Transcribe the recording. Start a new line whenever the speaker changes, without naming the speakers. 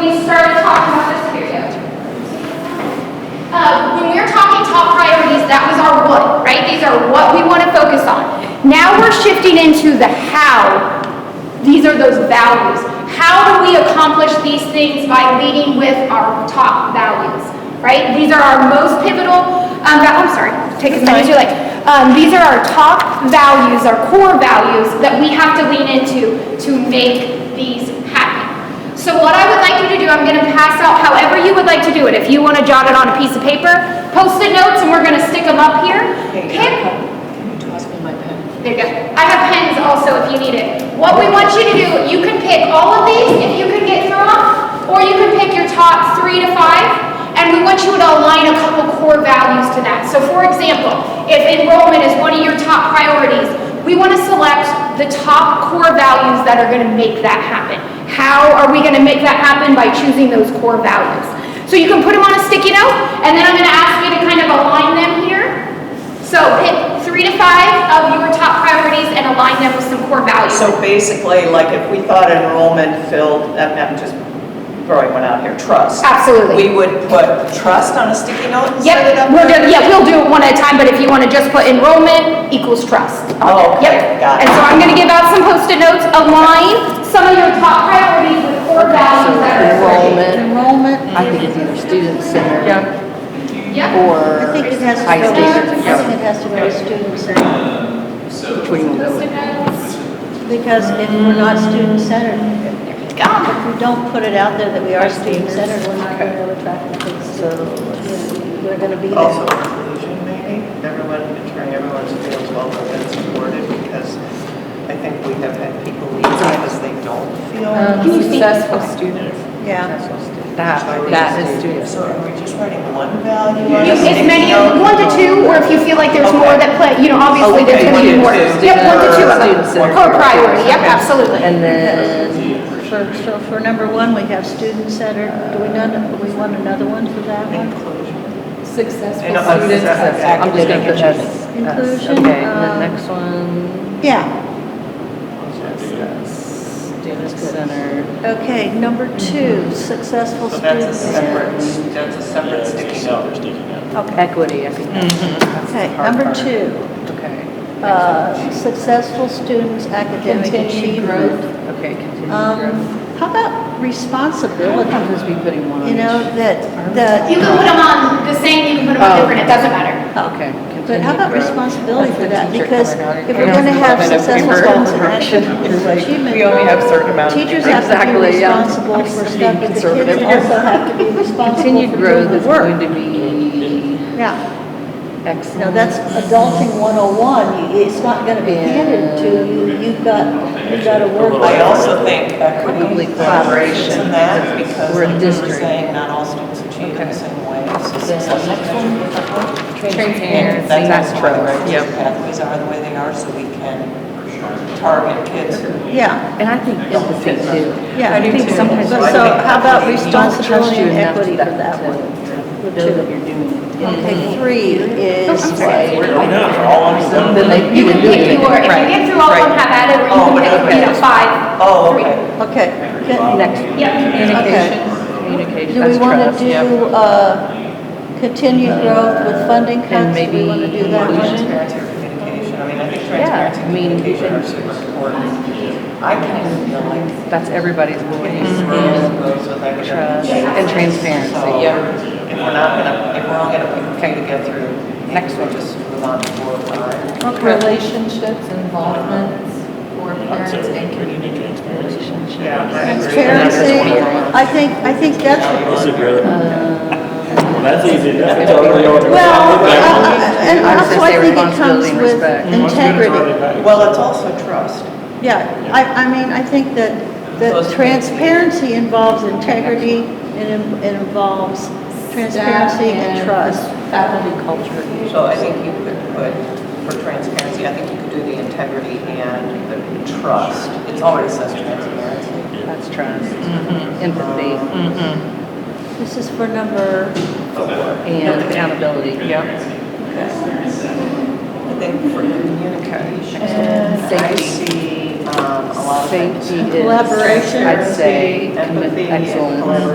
started talking about this period. Uh, when we were talking top priorities, that was our what, right? These are what we want to focus on. Now we're shifting into the how. These are those values. How do we accomplish these things by leading with our top values, right? These are our most pivotal, um, val- I'm sorry, take as many as you like. Um, these are our top values, our core values that we have to lean into to make these happen. So what I would like you to do, I'm going to pass out however you would like to do it. If you want to jot it on a piece of paper, post-it notes, and we're going to stick them up here. Pick,
Can you toss me my pen?
there you go. I have pens also if you need it. What we want you to do, you can pick all of these if you can get through them, or you can pick your top three to five, and we want you to align a couple core values to that. So for example, if enrollment is one of your top priorities, we want to select the top core values that are going to make that happen. How are we going to make that happen by choosing those core values? So you can put them on a sticky note, and then I'm going to ask you to kind of align them here. So pick three to five of your top priorities and align them with some core values.
So basically, like if we thought enrollment filled, I'm I'm just throwing one out here, trust.
Absolutely.
We would put trust on a sticky note and set it
Yep,
up?
we'll do,
there?
yeah, we'll do it one at a time, but if you want to just put enrollment equals trust.
Oh, okay,
Yep.
got it.
And so I'm going to give out some post-it notes, align some of your top priorities with core values that are
Enrollment.
associated.
Enrollment. I think it's either student center
Yep.
I
or
think it has to
high
go, I think
standards.
it has to go to student centered,
Um, So,
Which one you wanna go with?
Post-it notes.
because if we're not student centered, if we don't put it out there that we are student centered, we're not gonna really attract the kids to, you know, we're gonna be
Also
oh.
there.
inclusion, maybe, everyone, ensuring everyone feels welcome and supported, because I think we have had people leave because they don't
Um,
feel.
Um, Successful student.
Yeah,
That, that is student
So
center.
are we just writing one value? on a
You- If
sticky
many,
note?
one to two, or if you feel like there's more
Okay.
that play, you know, obviously there's
okay,
going to be
one to
more.
two.
Yep, one to two of
Student
them.
center.
Core priority, yep, absolutely.
And then,
for, so for number one, we have student centered, do we not, we want another one for that one?
Inclusion.
successful
And I'm-
student center. I'm just gonna put S.
Inclusion,
Okay, and then
um,
next one,
Yeah,
student center.
okay, number two, successful
So that's a
student
separate,
centered.
that's a separate sticky note.
Okay, Mm-hmm.
Equity, I think. that's the
okay,
hard
number
part.
two,
Okay.
uh, successful students' academic
Continued
achievement.
growth. Okay, continued
Um,
growth.
How about
We'll
responsibility?
probably just be putting one on
You know,
each.
that,
You
the,
can put them on the same, you can put them on
Oh.
different, it doesn't matter.
Okay.
but how
continued
about
growth.
responsibility for that?
That's the teacher
Because
coming out
if
and
we're going to have
kind of
successful
encouragement.
students and academic achievement. We only have certain amount. Teachers have to be
Exactly, yeah.
responsible for stuff, but the
conservative.
kids also have to be responsible
Continued
for
growth
doing
is
the work.
going to be
Yeah,
excellent.
now that's adulting 101. You- It's not going to be handed to you. You've got, you've got to work.
I also think equity
Probably collaboration.
collaboration in that because
We're a
like you were
district.
saying, not all students achieve in the same way. So success-
Transparency.
That's also why
Trust.
the
Yep.
pathways are the way they are so we can target kids who
Yeah,
And I think empathy too.
yeah.
I do too.
But So how about responsibility and equity for that one?
one. Mm-hmm.
Two.
Know that you're doing it.
Okay, three
Oh,
is like,
So Then they,
You
you would
can
do
pick
it.
your, if you get through all of them, have at it, or you can pick, you know, five.
Oh,
three.
okay.
okay. good.
Next.
Yep.
Communication, communication,
Do we
that's
want to
trust. Yep.
do, uh, continued growth with funding
And
cuts? Do
maybe
we want to do that one?
inclusion.
Transparency or communication. I mean, I think
Yeah,
transparency
I
and
mean,
communication are super important. I can feel like
that's everybody's
getting
voice.
Mm-hmm.
through those with academic
Trust
achievement.
and transparency,
Mm-hmm. So
yeah.
If we're not gonna, if we're all gonna pick a few to get through,
Next
next
one.
we'll just move on to four or five.
Relationships, involvements, for parents and community transparency.
Transparency, I think, I think that's,
That's easy enough.
Uh, well, uh, uh, and
I was
also
gonna
I
say
think it
responsibility
comes
and
with
respect.
integrity.
Well, it's also trust.
Yeah, I, I mean, I think that, that transparency involves integrity and it- it involves transparency and trust.
Faculty culture.
So I think you could put, for transparency, I think you could do the integrity and the trust. It already says transparency.
That's trust,
mm-hmm.
empathy,
This is for number,
and accountability. Yep.
I think for communication, I
Safety.
see um, a lot of things.
Safety is,
Collaboration.
I'd say,
Empathy and
excellence.
collaboration.